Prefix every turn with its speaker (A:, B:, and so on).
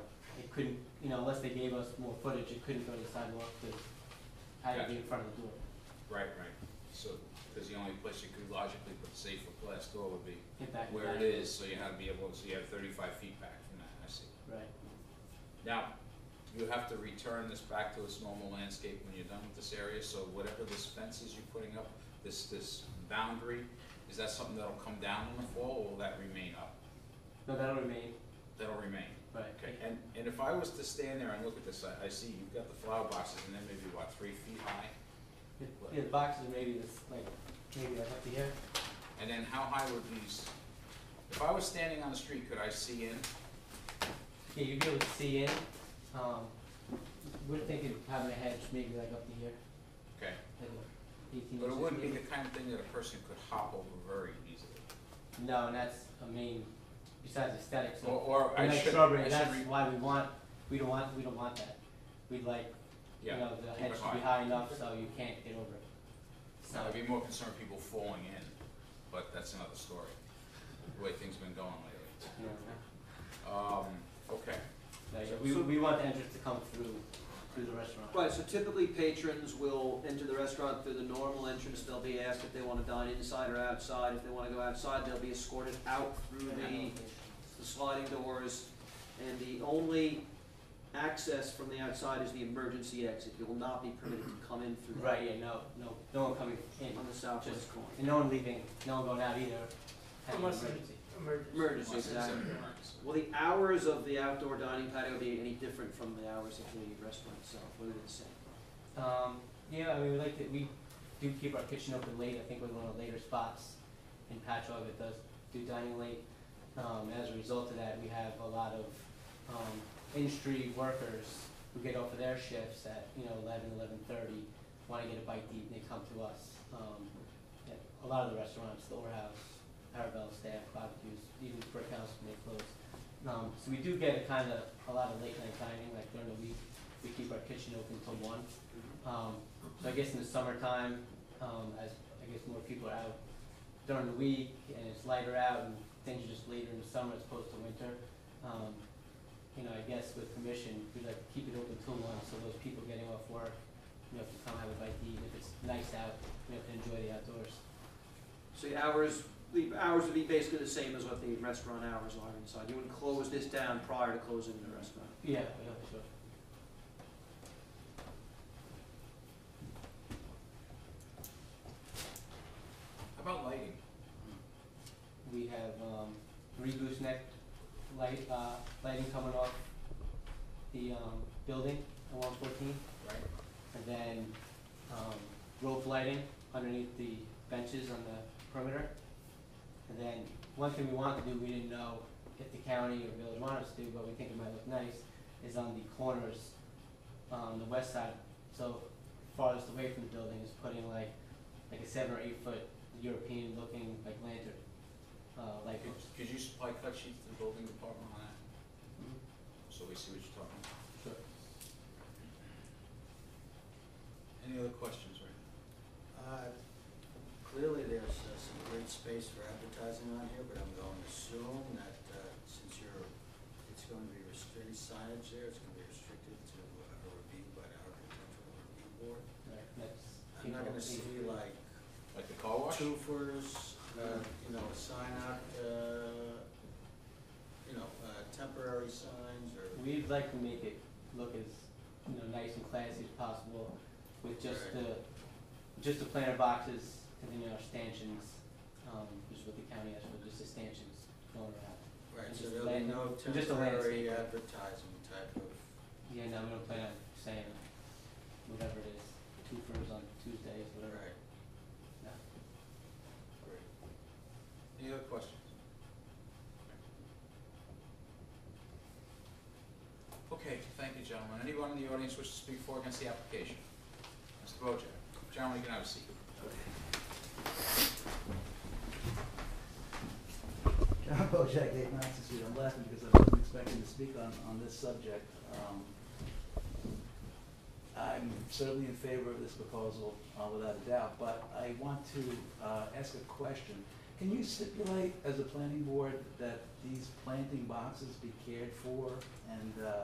A: it couldn't, you know, unless they gave us more footage, it couldn't go to the sidewalk, because it had to be in front of the door.
B: Right, right. So, because the only place you could logically put safe for glass door would be
A: Get back to
B: where it
A: that.
B: is, so you have to be able, so you have thirty-five feet back from that, I see.
A: Right,
B: Now, you have to return this back to its normal landscape when you're done with this area, so whatever this fence is you're putting up, this, this boundary, is that something that'll come down in the fall, or will that remain up?
A: no, that'll remain,
B: That'll remain.
A: right.
B: Okay, and, and if I was to stand there and look at this, I, I see you've got the flower boxes, and they're maybe, what, three feet high?
A: The, yeah, the boxes maybe this, like, maybe like up to here,
B: And then how high would these, if I was standing on the street, could I see in?
A: yeah, you'd be able to see in, um, we're thinking of having a hedge maybe like up to here,
B: Okay,
A: like eighteen inches.
B: but it wouldn't be
A: maybe.
B: the kind of thing that a person could hop over very easily.
A: No, and that's, I mean, besides aesthetics,
B: Or,
A: so,
B: or I
A: and like
B: should,
A: shrubbery,
B: I
A: and
B: should
A: that's
B: re-
A: why we want, we don't want, we don't want that. We'd like, you
B: yeah,
A: know, the
B: keep
A: hedge
B: it
A: should be
B: high.
A: high enough so you can't get over it. So,
B: I'd be more concerned people falling in, but that's another story, the way things have been going lately.
A: you know,
B: Um, okay,
A: like, we, we want the entrance to come through, through the restaurant.
C: Right, so typically patrons will enter the restaurant through the normal entrance, they'll be asked if they wanna dine inside or outside, if they wanna go outside, they'll be escorted out through
A: uh,
C: the, the sliding doors, and the only access from the outside is the emergency exit, you will not be permitted to come in through that
A: Right, yeah, no, no, no one coming in,
C: on the southwest corner.
A: and no one leaving, no one going out either, having an
D: Unless-
A: emergency.
C: Emergency,
B: unless it's an
C: exactly.
B: emergency.
C: Will the hours of the outdoor dining patio be any different from the hours of the restaurant itself, Will they be the same?
A: Um, yeah, I mean, we like to, we do keep our kitchen open late, I think we're one of the later spots in Patchogue that does do dining late. Um, as a result of that, we have a lot of, um, industry workers who get off of their shifts at, you know, eleven, eleven-thirty, wanna get a bite to eat, and they come to us. Um, at a lot of the restaurants, the Ore House, Parabel staff, barbecues, even Brick House when they close. Um, so we do get a kinda, a lot of late night dining, like during the week, we keep our kitchen open till one. Um, so I guess in the summertime, um, as I guess more people are out during the week and it's lighter out and things are just later in the summer as opposed to winter. Um, you know, I guess with permission, we'd like to keep it open till one, so those people getting off work, you know, can come have a bite to eat, if it's nice out, you know, can enjoy the outdoors.
C: So the hours, the hours would be basically the same as what the restaurant hours are inside. You wouldn't close this down prior to closing the restaurant.
A: Yeah, yeah, sure.
B: How about lighting?
A: We have, um, three gooseneck light, uh, lighting coming off the, um, building at one fourteen.
B: Right,
A: and then um, rope lighting underneath the benches on the perimeter. And then, one thing we wanted to do, we didn't know if the county or village wanted us to do, but we think it might look nice, is on the corners, on the west side, so farthest away from the building, is putting like, like a seven or eight foot European looking like lantern, uh, light
B: could,
A: post.
B: could you supply cut sheets to the building department on that,
E: Mm-hmm.
A: Mhm.
B: so we see what you're talking about?
A: Sure.
B: Any other questions, right?
E: Uh, Clearly, there's uh, some great space for advertising on here, but I'm going to assume that uh, since you're, it's going to be restricted signage there, it's going to be restricted to uh, a review by the architectural review board.
A: Right, that's.
E: I'm not going to see like
B: Like the car wash?
E: twofers, uh, you know, a sign out, uh, you know, uh, temporary signs or.
A: We'd like to make it look as, you know, nice and classy as possible with just
E: Right.
A: the, just the planter boxes and then our stanchions, um, which is what the county has for, just the stanchions going around.
E: Right,
A: and
E: so
A: just
E: there'll be
A: land-
E: no
A: and just a
E: temporary
A: landscape.
E: advertising type of.
A: Yeah, no, we don't plan on saying whatever it is, two furs on Tuesdays, whatever.
E: Right,
A: No.
E: great.
B: Any other questions? Okay, thank you, gentlemen. Anyone in the audience wish to speak for or against the application? Mr. Wojcik, gentlemen, you can have a seat.
F: John Bojack, eight Knox Street, I'm laughing because I wasn't expecting to speak on, on this subject. Um, I'm certainly in favor of this proposal, uh, without a doubt, but I want to, uh, ask a question. Can you stipulate as a planning board that these planting boxes be cared for and, uh,